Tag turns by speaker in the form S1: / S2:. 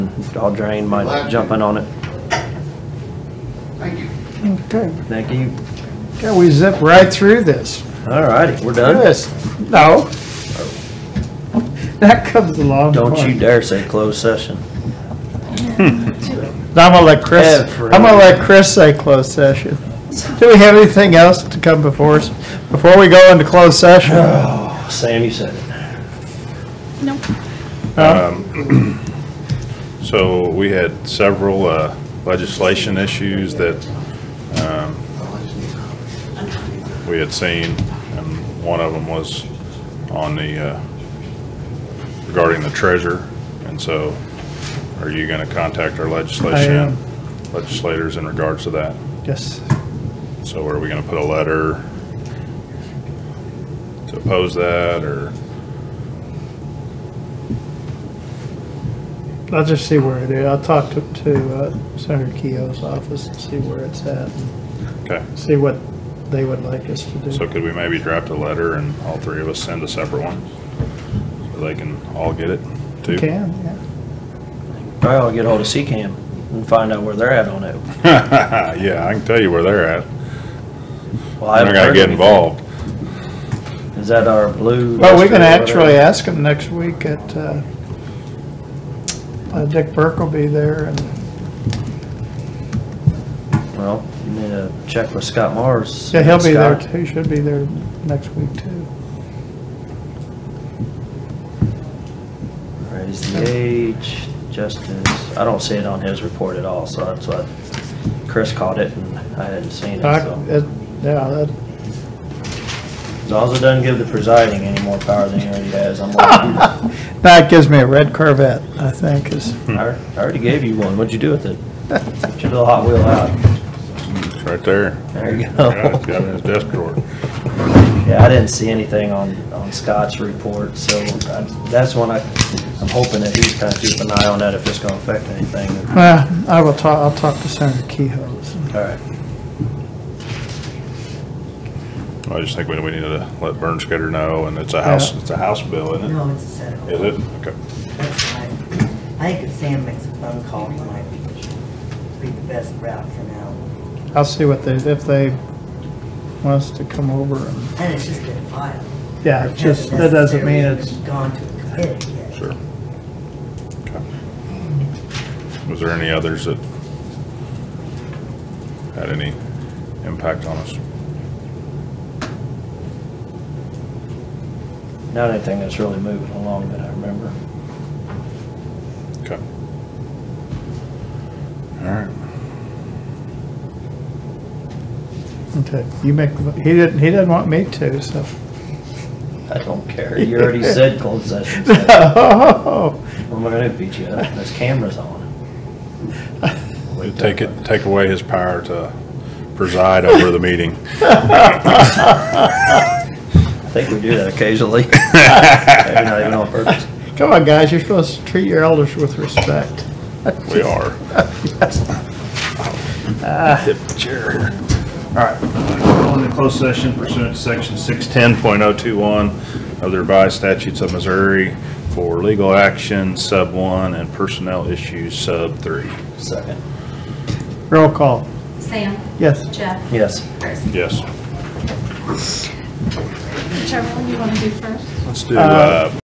S1: I'll drain my jumping on it.
S2: Thank you.
S3: Okay,
S1: Thank you.
S3: okay, we zip right through this.
S1: All righty, we're done.
S3: Yes, no. That comes along.
S1: Don't you dare say closed session.
S3: I'm gonna let Chris,
S1: Ever.
S3: I'm gonna let Chris say closed session. Do we have anything else to come before us, before we go into closed session?
S1: Sam, you said it.
S4: So we had several uh, legislation issues that um, we had seen, and one of them was on the, uh, regarding the treasurer. And so are you going to contact our legislation,
S3: am.
S4: legislators in regards to that?
S3: Yes,
S4: So are we going to put a letter to oppose that, or?
S3: I'll just see where it is. I'll talk to, to uh, Senator Keogh's office and see where it's at,
S4: Okay,
S3: see what they would like us to
S4: so
S3: do.
S4: could we maybe draft a letter and all three of us send a separate one? So they can all get it, too?
S3: Can, yeah.
S1: All right, I'll get hold of CCAM and find out where they're at on it.
S4: Yeah, I can tell you where they're at.
S1: Well, I
S4: I
S1: haven't
S4: gotta
S1: heard
S4: get
S1: anything.
S4: involved.
S1: Is that our blue?
S3: Well, we can
S1: duster or
S3: actually
S1: whatever?
S3: ask him next week at, uh, uh, Dick Burke will be there and,
S1: Well, you need to check with Scott Mars.
S3: yeah, he'll be there,
S1: Scott,
S3: too. he should be there next week too.
S1: Raise the age, justice. I don't see it on his report at all, so that's what, Chris caught it and I hadn't seen it,
S3: I- uh,
S1: so.
S3: it- Yeah, that,
S1: As long as it doesn't give the presiding any more power than he already has, I'm like,
S3: that gives me a red Corvette, I think is,
S4: Hmm.
S1: I I already gave you one. What'd you do with it? Took your little Hot Wheel out.
S4: It's right there.
S1: There you
S4: Yeah,
S1: go.
S4: it's got it in his desk drawer.
S1: Yeah, I didn't see anything on, on Scott's report, so I- that's one I, I'm hoping that he's kind of keeping an eye on that if it's gonna affect anything.
S3: uh, I will talk, I'll talk to Senator Kehoe's.
S1: All right.
S4: I just think we, we need to let Vern Scudder know, and it's a house,
S3: Yeah.
S4: it's a house bill, isn't
S5: No, it's a setup.
S4: it? Is it? Okay.
S5: That's fine. I think if Sam makes a phone call, it might be the best route for now.
S3: I'll see what they, if they want us to come over and,
S5: And it's just been filed.
S3: yeah, it's just, that doesn't mean it's,
S5: necessarily Gone to a committee yet.
S4: Sure. Okay. Was there any others that had any impact on us?
S1: Not anything that's really moving along that I remember.
S4: Okay. All right.
S3: okay, you make, he didn't, he didn't want me to, so.
S1: I don't care. You already said closed session. so
S3: No.
S1: I'm not gonna beat you up. There's cameras on.
S4: Take it, take away his power to preside over the meeting.
S1: I think we do that occasionally. Maybe not even on purpose.
S3: Come on, guys, you're supposed to treat your elders with respect.
S4: We are. Chair. Ah. All right, going into closed session pursuant to section 610.021 of the revised statutes of Missouri for legal action, sub one, and personnel issues, sub three.
S1: Second.
S3: Roll call.
S6: Sam.
S3: Yes.
S6: Jeff.
S1: Yes.
S6: Chris.
S4: Yes.
S6: Whichever one you want to do first.
S4: Let's do, uh,